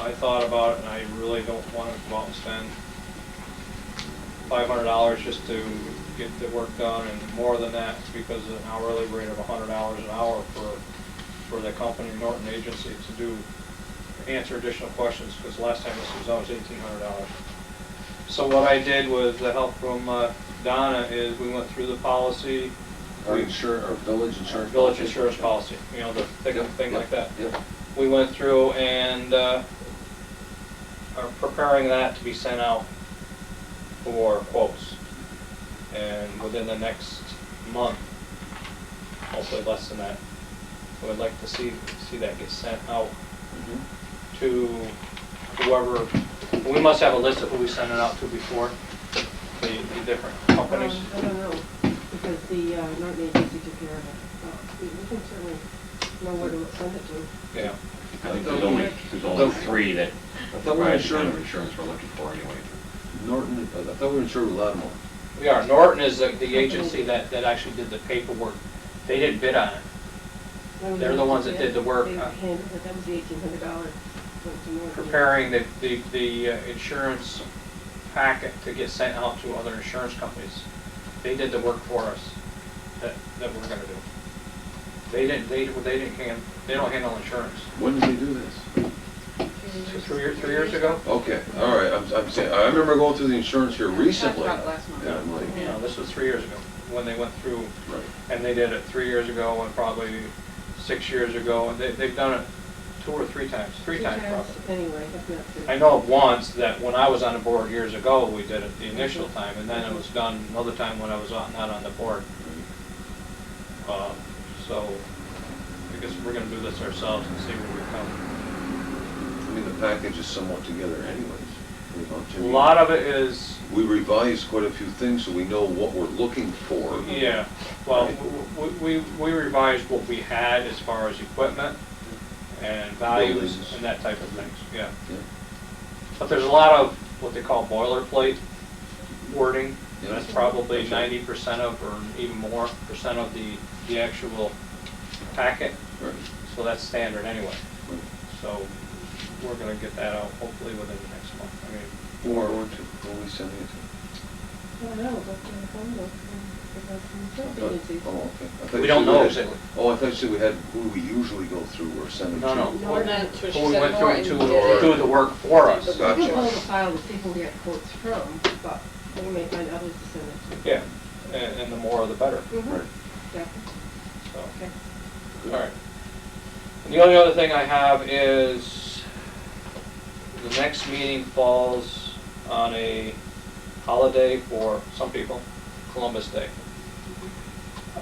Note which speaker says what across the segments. Speaker 1: I thought about it, and I really don't want to go out and spend five hundred dollars just to get the work done, and more than that, because of an hourly rate of hundred dollars an hour for, for the company Norton Agency to do, answer additional questions, because last time this was always eighteen hundred dollars. So what I did with the help from uh, Donna is we went through the policy,
Speaker 2: Our insur, our village insurance.
Speaker 1: village
Speaker 2: policy.
Speaker 1: insurance policy, you know, the thing,
Speaker 2: Yep,
Speaker 1: thing like that.
Speaker 2: yep, Yep,
Speaker 1: We went through and uh, are preparing that to be sent out for quotes. And within the next month, hopefully less than that, I would like to see, see that get sent out Mm-hmm. to whoever, we must have a list of who we send it out to before, the, the different companies.
Speaker 3: Um, I don't know, because the uh, Norton agency took care of it. But we- We can certainly know where to send it to.
Speaker 1: Yeah.
Speaker 4: I think there's only, there's only three that provide the kind of insurance we're looking for anyway.
Speaker 2: Norton, uh, I thought we were insured with Lattimore.
Speaker 1: We are. Norton is the, the agency that, that actually did the paperwork. They didn't bid on it. They're the ones that did the work,
Speaker 3: They
Speaker 1: huh?
Speaker 3: handled it, that was the eighteen hundred dollars.
Speaker 1: Preparing the, the, the uh, insurance packet to get sent out to other insurance companies. They did the work for us that, that we're gonna do. They didn't, they, they didn't, hand- they don't handle insurance.
Speaker 2: When did they do this?
Speaker 1: Two, three years, three years ago?
Speaker 2: Okay, all right, I'm, I'm saying, I remember going through the insurance here
Speaker 5: Yeah, we talked
Speaker 2: recently.
Speaker 5: about it last month.
Speaker 2: And I'm like,
Speaker 1: No, this was three years ago, when they went through,
Speaker 2: right,
Speaker 1: and they did it three years ago and probably six years ago, and they, they've done it two or three times, three times probably.
Speaker 3: Anyway, if not three.
Speaker 1: I know of once that when I was on the board years ago, we did it the initial time, and then it was done another time when I was on- not on the board. Uh, So I guess we're gonna do this ourselves and see where we come.
Speaker 2: I mean, the package is somewhat together anyways. you know,
Speaker 1: A
Speaker 2: to me.
Speaker 1: lot of it is,
Speaker 2: We revised quite a few things so we know what we're looking for.
Speaker 1: yeah, well, w- w- we we revised what we had as far as equipment and values
Speaker 2: Buildings.
Speaker 1: and that type of things, yeah.
Speaker 2: Yeah.
Speaker 1: But there's a lot of what they call boilerplate wording.
Speaker 2: Yeah.
Speaker 1: That's probably
Speaker 2: That's right.
Speaker 1: ninety percent of, or even more, percent of the, the actual packet.
Speaker 2: Right,
Speaker 1: So that's standard anyway.
Speaker 2: right.
Speaker 1: So we're gonna get that out hopefully within the next month. I mean,
Speaker 2: Who are, we to- who are we sending it to?
Speaker 3: I don't know, but in the phone book, um, because the
Speaker 2: Oh,
Speaker 3: insurance agency.
Speaker 2: okay. I thought you
Speaker 1: We don't
Speaker 2: said
Speaker 1: know
Speaker 2: had-
Speaker 1: exactly.
Speaker 2: Oh, I thought you said we had, who we usually go through or send it to.
Speaker 1: No, no.
Speaker 5: No, we're not, Trish
Speaker 1: Who we
Speaker 5: said
Speaker 1: went
Speaker 5: more
Speaker 1: through
Speaker 5: and
Speaker 1: to
Speaker 5: did
Speaker 1: do the
Speaker 5: it.
Speaker 1: work for us.
Speaker 2: Gotcha.
Speaker 3: You can pull the file to see who we get quotes from, but we may find others to send it to.
Speaker 1: Yeah, and, and the more the better,
Speaker 3: Mhm.
Speaker 2: Right.
Speaker 3: Yeah,
Speaker 1: so.
Speaker 3: okay.
Speaker 1: All right. And the only other thing I have is, the next meeting falls on a holiday for some people, Columbus Day,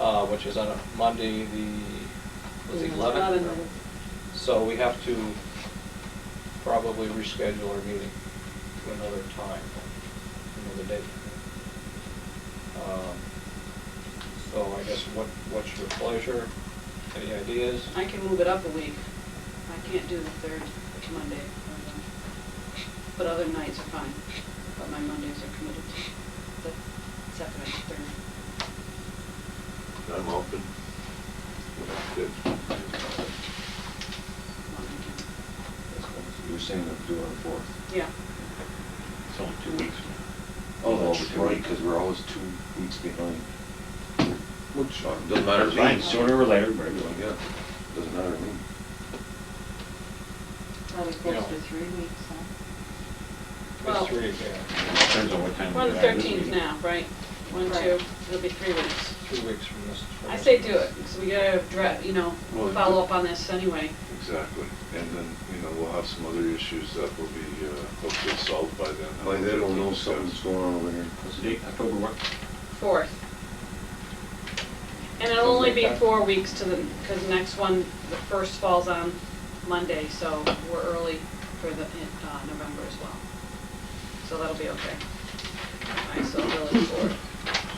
Speaker 1: uh, which is on a Monday, the, was it
Speaker 3: Eleven
Speaker 1: 11th?
Speaker 3: minutes.
Speaker 1: So we have to probably reschedule our meeting to another time, another date. Um, So I guess what, what's your pleasure? Any ideas?
Speaker 5: I can move it up a week. I can't do the third, which Monday. um, But other nights are fine, but my Mondays are committed to the second and third.
Speaker 6: I'm open. Good.
Speaker 5: Monday.
Speaker 2: You were saying that we do it on the fourth.
Speaker 5: Yeah,
Speaker 4: It's only two weeks now.
Speaker 2: Oh,
Speaker 4: Well,
Speaker 2: that's
Speaker 4: two
Speaker 2: right,
Speaker 4: weeks.
Speaker 2: because we're always two weeks behind. Which, uh, doesn't matter
Speaker 4: That's
Speaker 2: to
Speaker 4: fine,
Speaker 2: me.
Speaker 4: sooner or later, but
Speaker 2: Yeah, doesn't matter to me.
Speaker 5: probably
Speaker 1: Yeah.
Speaker 5: close to three weeks, huh? Well,
Speaker 1: It's three, yeah,
Speaker 4: depends on what time.
Speaker 5: we're on the
Speaker 4: we have this
Speaker 5: thirteenth
Speaker 4: meeting.
Speaker 5: now, right? One,
Speaker 3: Right.
Speaker 5: two, it'll be three weeks.
Speaker 1: two weeks from this. from
Speaker 5: I
Speaker 1: this.
Speaker 5: say do it, because we gotta, dra- you know,
Speaker 6: Well,
Speaker 5: follow up on this anyway.
Speaker 6: Exactly. And then, you know, we'll have some other issues that will be uh, hopefully solved by then.
Speaker 2: Like, they don't know something's going on over here.
Speaker 4: What's the date, October what?
Speaker 5: Fourth. And it'll only be four weeks to the, because next one, the first falls on Monday, so we're early for the, uh, November as well. So that'll be okay. All right, so village board.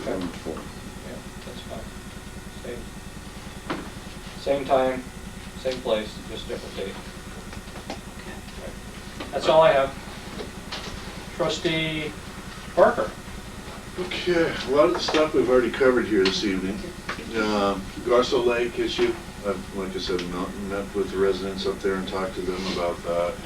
Speaker 2: Seven, four.
Speaker 1: Yeah, that's fine. Same, same time, same place, just different date.
Speaker 5: Okay.
Speaker 1: That's all I have. Trustee Parker?
Speaker 6: Okay, a lot of the stuff we've already covered here this evening. Um, Garso Lake issue, I've, like I said, I've met with the residents up there and talked to them about that.